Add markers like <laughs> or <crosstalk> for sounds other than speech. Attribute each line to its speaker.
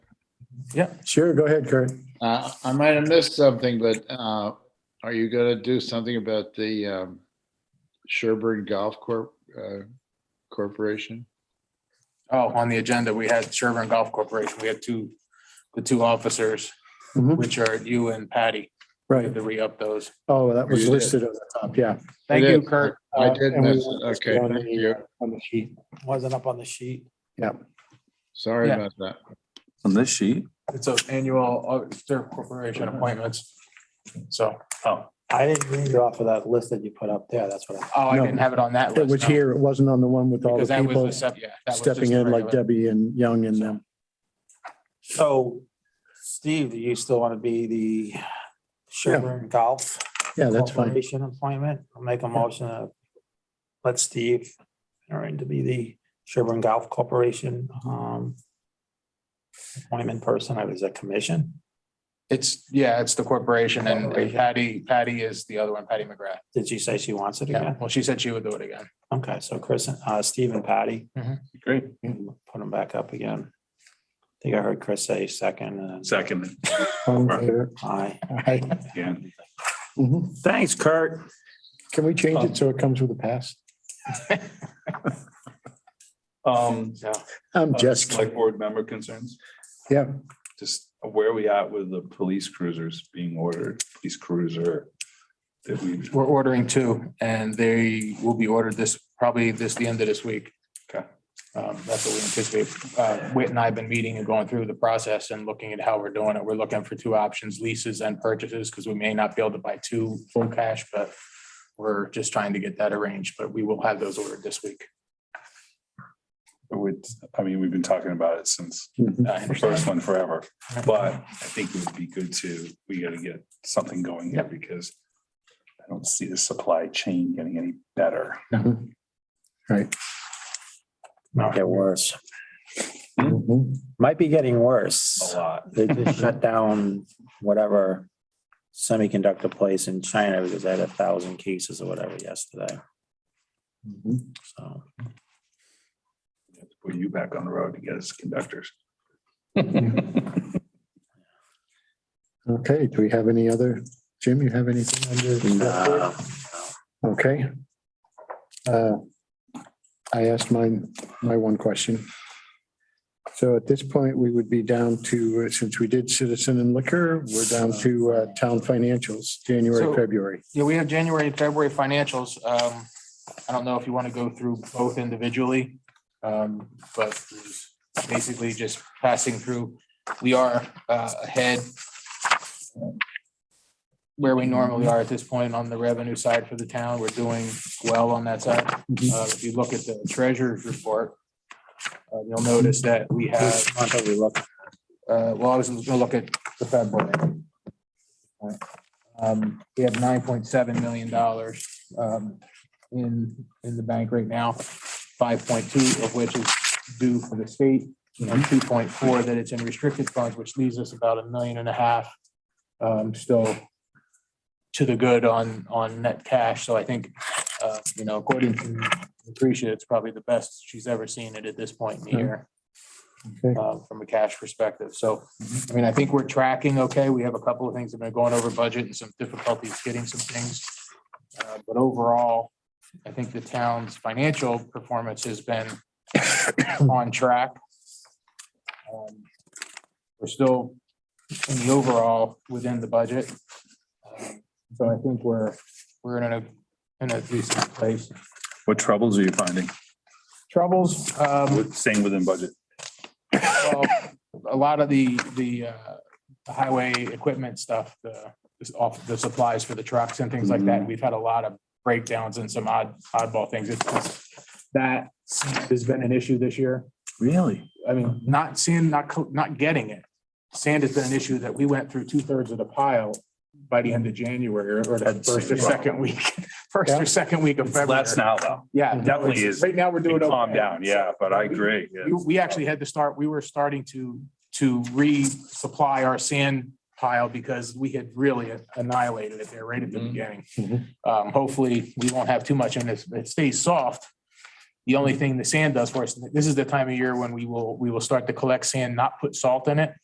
Speaker 1: Sure, go ahead, Kurt.
Speaker 2: Uh, I might have missed something, but, uh, are you gonna do something about the, um, Sherburne Golf Corp, uh, Corporation?
Speaker 3: Oh, on the agenda, we had Sherburne Golf Corporation. We had two, the two officers,
Speaker 1: Mhm.
Speaker 3: which are you and Patty, We
Speaker 1: Right.
Speaker 3: had to re-up those.
Speaker 1: Oh, that was
Speaker 2: You did.
Speaker 1: listed at the top, yeah.
Speaker 3: Thank
Speaker 2: It
Speaker 3: you,
Speaker 2: is.
Speaker 3: Kurt.
Speaker 2: I
Speaker 1: Uh,
Speaker 2: did
Speaker 1: and we
Speaker 2: miss,
Speaker 1: want
Speaker 2: it.
Speaker 1: this
Speaker 2: okay,
Speaker 1: on
Speaker 2: thank
Speaker 1: the,
Speaker 2: you.
Speaker 1: uh, On the sheet.
Speaker 4: Wasn't up on the sheet.
Speaker 2: Sorry
Speaker 3: yeah.
Speaker 2: about that.
Speaker 5: on this sheet.
Speaker 3: It's an annual officer corporation appointments. So, oh,
Speaker 4: I didn't read off of that list that you put up there. That's what I,
Speaker 3: oh, I
Speaker 1: No.
Speaker 3: didn't have it on that
Speaker 1: It
Speaker 3: list.
Speaker 1: was
Speaker 3: no,
Speaker 1: here, it wasn't on the one with all
Speaker 3: Because
Speaker 1: the
Speaker 3: that was the
Speaker 1: people
Speaker 3: sep- yeah, that was just
Speaker 1: stepping
Speaker 3: the
Speaker 1: in like
Speaker 3: regular-
Speaker 1: Debbie and Young and them.
Speaker 4: so Steve, do you still want to be the Sherburne Golf?
Speaker 1: Yeah, that's fine.
Speaker 4: Corporation appointment? I'll make a motion to let Steve, enter in to be the Sherburne Golf Corporation, um, appointment person. I was a commission.
Speaker 3: It's, yeah, it's the corporation and
Speaker 4: Corporation.
Speaker 3: Patty, Patty is the other one, Patty McGrath.
Speaker 4: Did she say she wants it
Speaker 3: Yeah,
Speaker 4: again?
Speaker 3: well, she said she would do it again.
Speaker 4: Okay, so Chris, and- uh, Steve and Patty,
Speaker 1: Mm-hmm.
Speaker 5: Great.
Speaker 4: put them back up again. I think I heard Chris say second and then
Speaker 5: Second.
Speaker 1: All in favor?
Speaker 4: aye.
Speaker 1: Aye.
Speaker 5: Yeah.
Speaker 1: Mhm.
Speaker 5: Thanks, Kurt.
Speaker 1: Can we change it so it comes with a pass?
Speaker 5: Um,
Speaker 4: Yeah.
Speaker 1: I'm just, kidding.
Speaker 5: Select board member concerns,
Speaker 1: yeah,
Speaker 5: just where we at with the police cruisers being ordered, police cruiser. That we,
Speaker 3: We're ordering two and they will be ordered this, probably this, the end of this week.
Speaker 5: Okay.
Speaker 3: Um, that's what we anticipate. Uh, Whit and I have been meeting and going through the process and looking at how we're doing it. We're looking for two options, leases and purchases, because we may not be able to buy two full cash, but we're just trying to get that arranged, but we will have those ordered this week.
Speaker 5: would, I mean, we've been talking about it since
Speaker 1: Mhm.
Speaker 3: I
Speaker 5: the
Speaker 3: understand.
Speaker 5: first one forever. But I think it would be good to, we gotta get something going here because I don't see the supply chain getting any better.
Speaker 4: Might get worse.
Speaker 1: Mhm.
Speaker 4: Might be getting
Speaker 5: A
Speaker 4: worse.
Speaker 5: lot.
Speaker 4: They just shut down whatever semiconductor place in China because they had a thousand cases or whatever yesterday.
Speaker 1: Mhm.
Speaker 4: So
Speaker 5: Put you back on the road to get us conductors.
Speaker 1: Okay, do we have any other, Jim, you have anything under?
Speaker 4: uh,
Speaker 1: Okay. Uh, I asked mine, my one question. So at this point, we would be down to, uh, since we did citizen and liquor, we're down to uh, town financials, January,
Speaker 3: So-
Speaker 1: February.
Speaker 3: Yeah, we have January and February financials. Um, I don't know if you want to go through both individually. Um, but basically just passing through, we are uh, ahead where we normally are at this point on the revenue side for the town. We're doing well on that side. Uh,
Speaker 4: Mm-hmm.
Speaker 3: if you look at the treasurer's report, uh, you'll notice that we have
Speaker 4: this month that we look,
Speaker 3: uh, well, I was gonna look at the February. Um, we have nine point seven million dollars, um, in, in the bank right now. Five point two of which is due for the state, and two point four that it's in restricted funds, which leaves us about a million and a half. Um, still to the good on, on net cash, so I think, uh, you know, according to Lucretia, it's probably the best she's ever seen it at this point in the year
Speaker 1: Okay.
Speaker 3: uh, from a cash perspective. So, I mean, I think we're tracking okay. We have a couple of things that have been going over budget and some difficulties getting some things. Uh, But overall, I think the town's financial performance has been on track. Um, We're still in the overall within the budget. Um, So I think we're, we're in a, in a decent place.
Speaker 5: What troubles are you finding
Speaker 3: Troubles, um,
Speaker 5: with staying within budget?
Speaker 3: Well, A lot of the, the uh, the highway equipment stuff, the, this off, the supplies for the trucks and things like
Speaker 5: Mm-hmm.
Speaker 3: that, we've had a lot of breakdowns and some odd, oddball things. It's- It's, that has been an issue this year.
Speaker 5: Really?
Speaker 3: I mean, not seeing, not, co- not getting it. Sand has been an issue that we went through two thirds of the pile by the end of January or the first or second week, <laughs> first or second week of February.
Speaker 5: That's now though.
Speaker 3: Yeah.
Speaker 5: Definitely is.
Speaker 3: Right now, we're doing.
Speaker 5: Calm
Speaker 3: okay.
Speaker 5: down, yeah, but I agree.
Speaker 3: We, we actually had to start, we were starting to, to resupply our sand pile because we had really annihilated it there right at the
Speaker 5: Mhm.
Speaker 3: beginning.
Speaker 1: Mhm.
Speaker 3: Um, hopefully, we won't have too much and if it stays soft. The only thing the sand does for us, this is the time of year when we will, we will start to collect sand, not put salt in it.